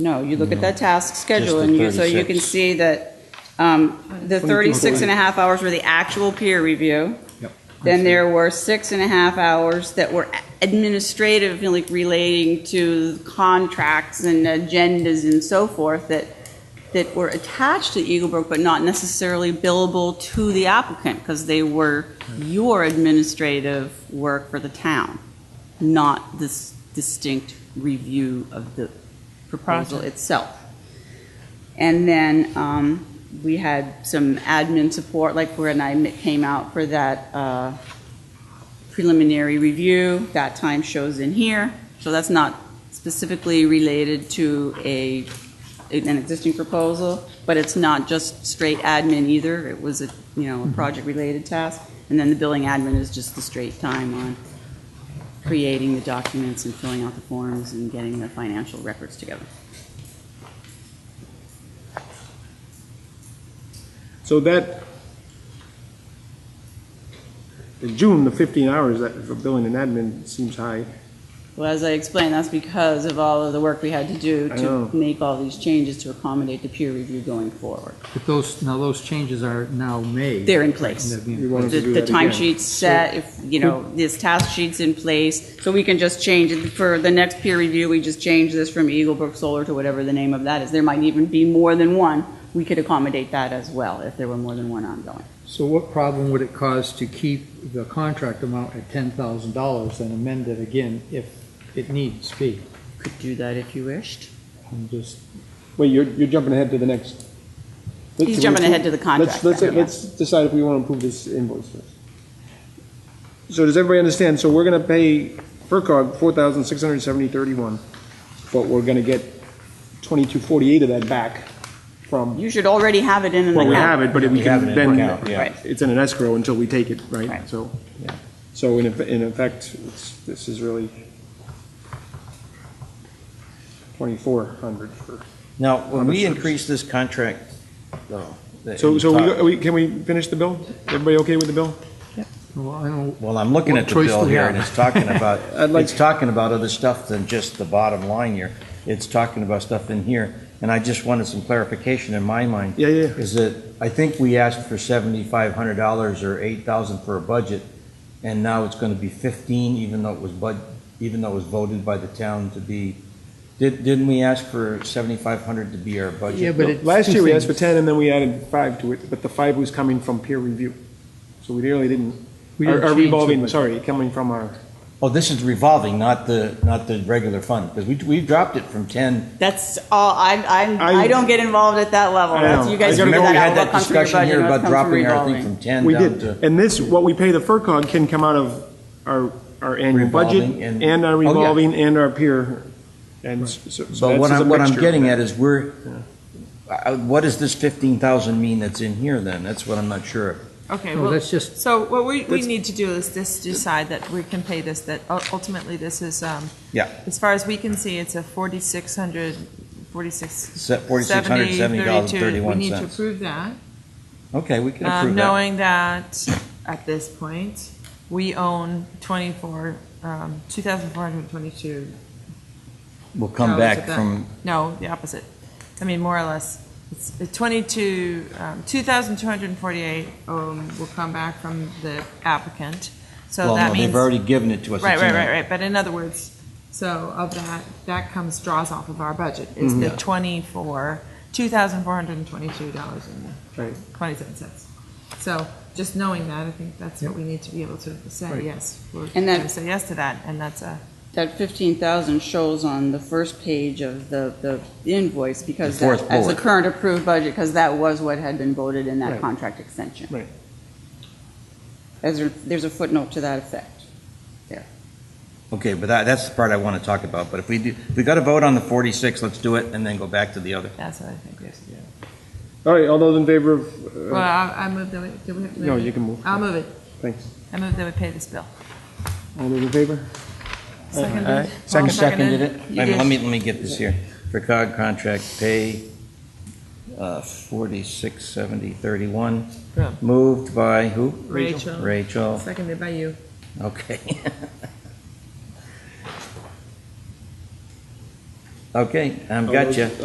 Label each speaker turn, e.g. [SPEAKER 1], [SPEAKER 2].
[SPEAKER 1] No, you look at that task schedule,
[SPEAKER 2] the
[SPEAKER 1] and you, so you can
[SPEAKER 2] 36.
[SPEAKER 1] see that um, the 36 and a half hours were the actual peer review.
[SPEAKER 3] Yep.
[SPEAKER 1] Then there were six and a half hours that were administrative, like relating to contracts and agendas and so forth that, that were attached to Eagle Brook, but not necessarily billable to the applicant, because they were your administrative work for the town, not this distinct review of the proposal itself. And then um, we had some admin support, like when I m- came out for that uh, preliminary review, that time shows in here. So that's not specifically related to a, an existing proposal, but it's not just straight admin either. It was a, you know, a project-related task. And then the billing admin is just the straight time on creating the documents and filling out the forms and getting the financial records together.
[SPEAKER 3] So that, in June, the 15 hours that for billing and admin seems high.
[SPEAKER 1] Well, as I explained, that's because of all of the work we had to do
[SPEAKER 3] I
[SPEAKER 1] to
[SPEAKER 3] know.
[SPEAKER 1] make all these changes to accommodate the peer review going forward.
[SPEAKER 4] But those, now those changes are now made.
[SPEAKER 1] They're in place.
[SPEAKER 4] And they'll be in
[SPEAKER 3] You
[SPEAKER 1] The
[SPEAKER 3] wanted to do
[SPEAKER 1] the
[SPEAKER 3] that again.
[SPEAKER 1] timesheet's set, if, you know, this task sheet's in place, so we can just change it for the next peer review, we just change this from Eagle Brook Solar to whatever the name of that is. There might even be more than one. We could accommodate that as well, if there were more than one ongoing.
[SPEAKER 4] So what problem would it cause to keep the contract amount at ten thousand dollars and amend it again if it needs be?
[SPEAKER 1] Could do that if you wished.
[SPEAKER 4] I'm just,
[SPEAKER 3] Wait, you're, you're jumping ahead to the next.
[SPEAKER 1] He's jumping ahead to the contract
[SPEAKER 3] Let's, let's,
[SPEAKER 1] then, yeah.
[SPEAKER 3] let's decide if we want to approve this invoice first. So does everybody understand? So we're going to pay FERCog 4670 but we're going to get 2248 of that back from,
[SPEAKER 1] You should already have it in an
[SPEAKER 3] well,
[SPEAKER 1] account.
[SPEAKER 3] we have it, but if we
[SPEAKER 2] We have it
[SPEAKER 3] can
[SPEAKER 2] in
[SPEAKER 3] then,
[SPEAKER 2] account, yeah.
[SPEAKER 1] Right.
[SPEAKER 3] it's in an escrow until we take it, right?
[SPEAKER 1] Right.
[SPEAKER 3] So,
[SPEAKER 2] Yeah.
[SPEAKER 3] so in, eff- in effect, it's, this is really 2,400 for.
[SPEAKER 2] Now, when we increase this contract, though. that
[SPEAKER 3] So,
[SPEAKER 2] you
[SPEAKER 3] so we,
[SPEAKER 2] talk-
[SPEAKER 3] are we- can we finish the bill? Everybody okay with the bill?
[SPEAKER 4] well, I don't,
[SPEAKER 2] Well, I'm looking
[SPEAKER 4] What
[SPEAKER 2] at the
[SPEAKER 4] choice do
[SPEAKER 2] bill
[SPEAKER 4] we
[SPEAKER 2] here,
[SPEAKER 4] have?
[SPEAKER 2] and it's talking about,
[SPEAKER 3] I'd like-
[SPEAKER 2] it's talking about other stuff than just the bottom line here. It's talking about stuff in here, and I just wanted some clarification in my mind.
[SPEAKER 3] Yeah, yeah.
[SPEAKER 2] Is that, I think we asked for seventy-five hundred dollars or eight thousand for a budget, and now it's gonna be fifteen, even though it was bud, even though it was voted by the town to be, did- didn't we ask for seventy-five hundred to be our budget?
[SPEAKER 4] Yeah, but it-
[SPEAKER 3] Last
[SPEAKER 4] two
[SPEAKER 3] year, we asked for
[SPEAKER 4] things.
[SPEAKER 3] 10, and then we added five to it, but the five was coming from peer review. So we really didn't,
[SPEAKER 4] we
[SPEAKER 3] our
[SPEAKER 4] didn't
[SPEAKER 3] our
[SPEAKER 4] change the
[SPEAKER 3] revolving,
[SPEAKER 4] budget.
[SPEAKER 3] sorry, coming from our,
[SPEAKER 2] Oh, this is revolving, not the, not the regular fund, because we, we've dropped it from ten.
[SPEAKER 1] That's all, I, I,
[SPEAKER 3] I-
[SPEAKER 1] I don't get involved at that level.
[SPEAKER 3] I
[SPEAKER 1] That's,
[SPEAKER 3] know.
[SPEAKER 1] you guys
[SPEAKER 3] I gotta
[SPEAKER 1] figure
[SPEAKER 2] Remember,
[SPEAKER 1] that
[SPEAKER 2] we
[SPEAKER 1] out,
[SPEAKER 2] had
[SPEAKER 1] what
[SPEAKER 2] that
[SPEAKER 1] comes from your
[SPEAKER 2] discussion
[SPEAKER 1] budget,
[SPEAKER 2] here
[SPEAKER 1] and what
[SPEAKER 2] about
[SPEAKER 1] comes from
[SPEAKER 2] dropping our thing
[SPEAKER 1] revolving.
[SPEAKER 2] from ten
[SPEAKER 3] we
[SPEAKER 2] down
[SPEAKER 3] did.
[SPEAKER 2] to.
[SPEAKER 3] And this, what we pay the FERCog can come out of our, our annual budget,
[SPEAKER 2] Revolving and-
[SPEAKER 3] and our
[SPEAKER 2] Oh, yeah.
[SPEAKER 3] revolving, and our peer, and s- so so
[SPEAKER 2] But what
[SPEAKER 3] that's just a
[SPEAKER 2] I'm, what I'm
[SPEAKER 3] mixture.
[SPEAKER 2] getting at is we're, I- I- what does this fifteen thousand mean that's in here then? That's what I'm not sure of.
[SPEAKER 5] Okay,
[SPEAKER 4] No,
[SPEAKER 5] well,
[SPEAKER 4] that's just-
[SPEAKER 5] so what we, we
[SPEAKER 3] That's-
[SPEAKER 5] need to do is just decide that we can pay this, that ul- ultimately this is, um,
[SPEAKER 2] Yeah.
[SPEAKER 5] as far as we can see, it's a forty-six hundred, forty-six.
[SPEAKER 2] Se- $4,670.31.
[SPEAKER 5] We need to approve that,
[SPEAKER 2] Okay, we can
[SPEAKER 5] um,
[SPEAKER 2] approve that.
[SPEAKER 5] knowing that at this point, we own twenty-four, um, two thousand four hundred twenty-two
[SPEAKER 2] We'll come
[SPEAKER 5] No,
[SPEAKER 2] back
[SPEAKER 5] it's a-
[SPEAKER 2] from,
[SPEAKER 5] No, the opposite. I mean, more or less, it's it's 22, um, 2,248 um, will come back from the applicant. So
[SPEAKER 2] well,
[SPEAKER 5] that
[SPEAKER 2] no,
[SPEAKER 5] means.
[SPEAKER 2] they've already given it to us.
[SPEAKER 5] Right,
[SPEAKER 2] It's in
[SPEAKER 5] right,
[SPEAKER 2] there.
[SPEAKER 5] right, right. But in other words, so of that, that comes, draws off of our budget, is the 24, $2,422.27.
[SPEAKER 3] Right.
[SPEAKER 5] So just knowing that, I think that's what we need to be able to say,
[SPEAKER 4] Right.
[SPEAKER 5] yes. We're
[SPEAKER 1] And that-
[SPEAKER 5] going to say yes to that, and that's a,
[SPEAKER 1] That fifteen thousand shows on the first page of the, the invoice because
[SPEAKER 2] The fourth
[SPEAKER 1] that, as the
[SPEAKER 2] bullet.
[SPEAKER 1] current approved budget, because that was what had been voted in that contract extension.
[SPEAKER 3] Right.
[SPEAKER 1] As there- there's a footnote to that effect.
[SPEAKER 2] Okay, but that, that's the part I want to talk about. But if we do, if we got to vote on the forty-six, let's do it and then go back to the other.
[SPEAKER 5] that's what I think we have to do.
[SPEAKER 3] All right, all those in favor of,
[SPEAKER 5] Well,
[SPEAKER 3] uh,
[SPEAKER 5] I, I move that we, do we have to move
[SPEAKER 3] No,
[SPEAKER 5] it?
[SPEAKER 3] you can move.
[SPEAKER 5] I'll move it.
[SPEAKER 3] thanks,
[SPEAKER 5] I move that we pay this bill.
[SPEAKER 3] all those in favor?
[SPEAKER 5] Seconded.
[SPEAKER 3] Aye.
[SPEAKER 5] Paul
[SPEAKER 3] Second.
[SPEAKER 2] Seconded it? Wait
[SPEAKER 5] You
[SPEAKER 2] a minute,
[SPEAKER 5] did.
[SPEAKER 2] Let me, let me get this here. For COG contract pay, uh, forty-six seventy thirty-one,
[SPEAKER 5] Yeah.
[SPEAKER 2] moved by who?
[SPEAKER 5] Rachel.
[SPEAKER 2] Rachel,
[SPEAKER 5] Seconded by you.
[SPEAKER 2] okay.
[SPEAKER 6] Okay, I'm
[SPEAKER 2] All
[SPEAKER 6] gotcha.
[SPEAKER 2] those-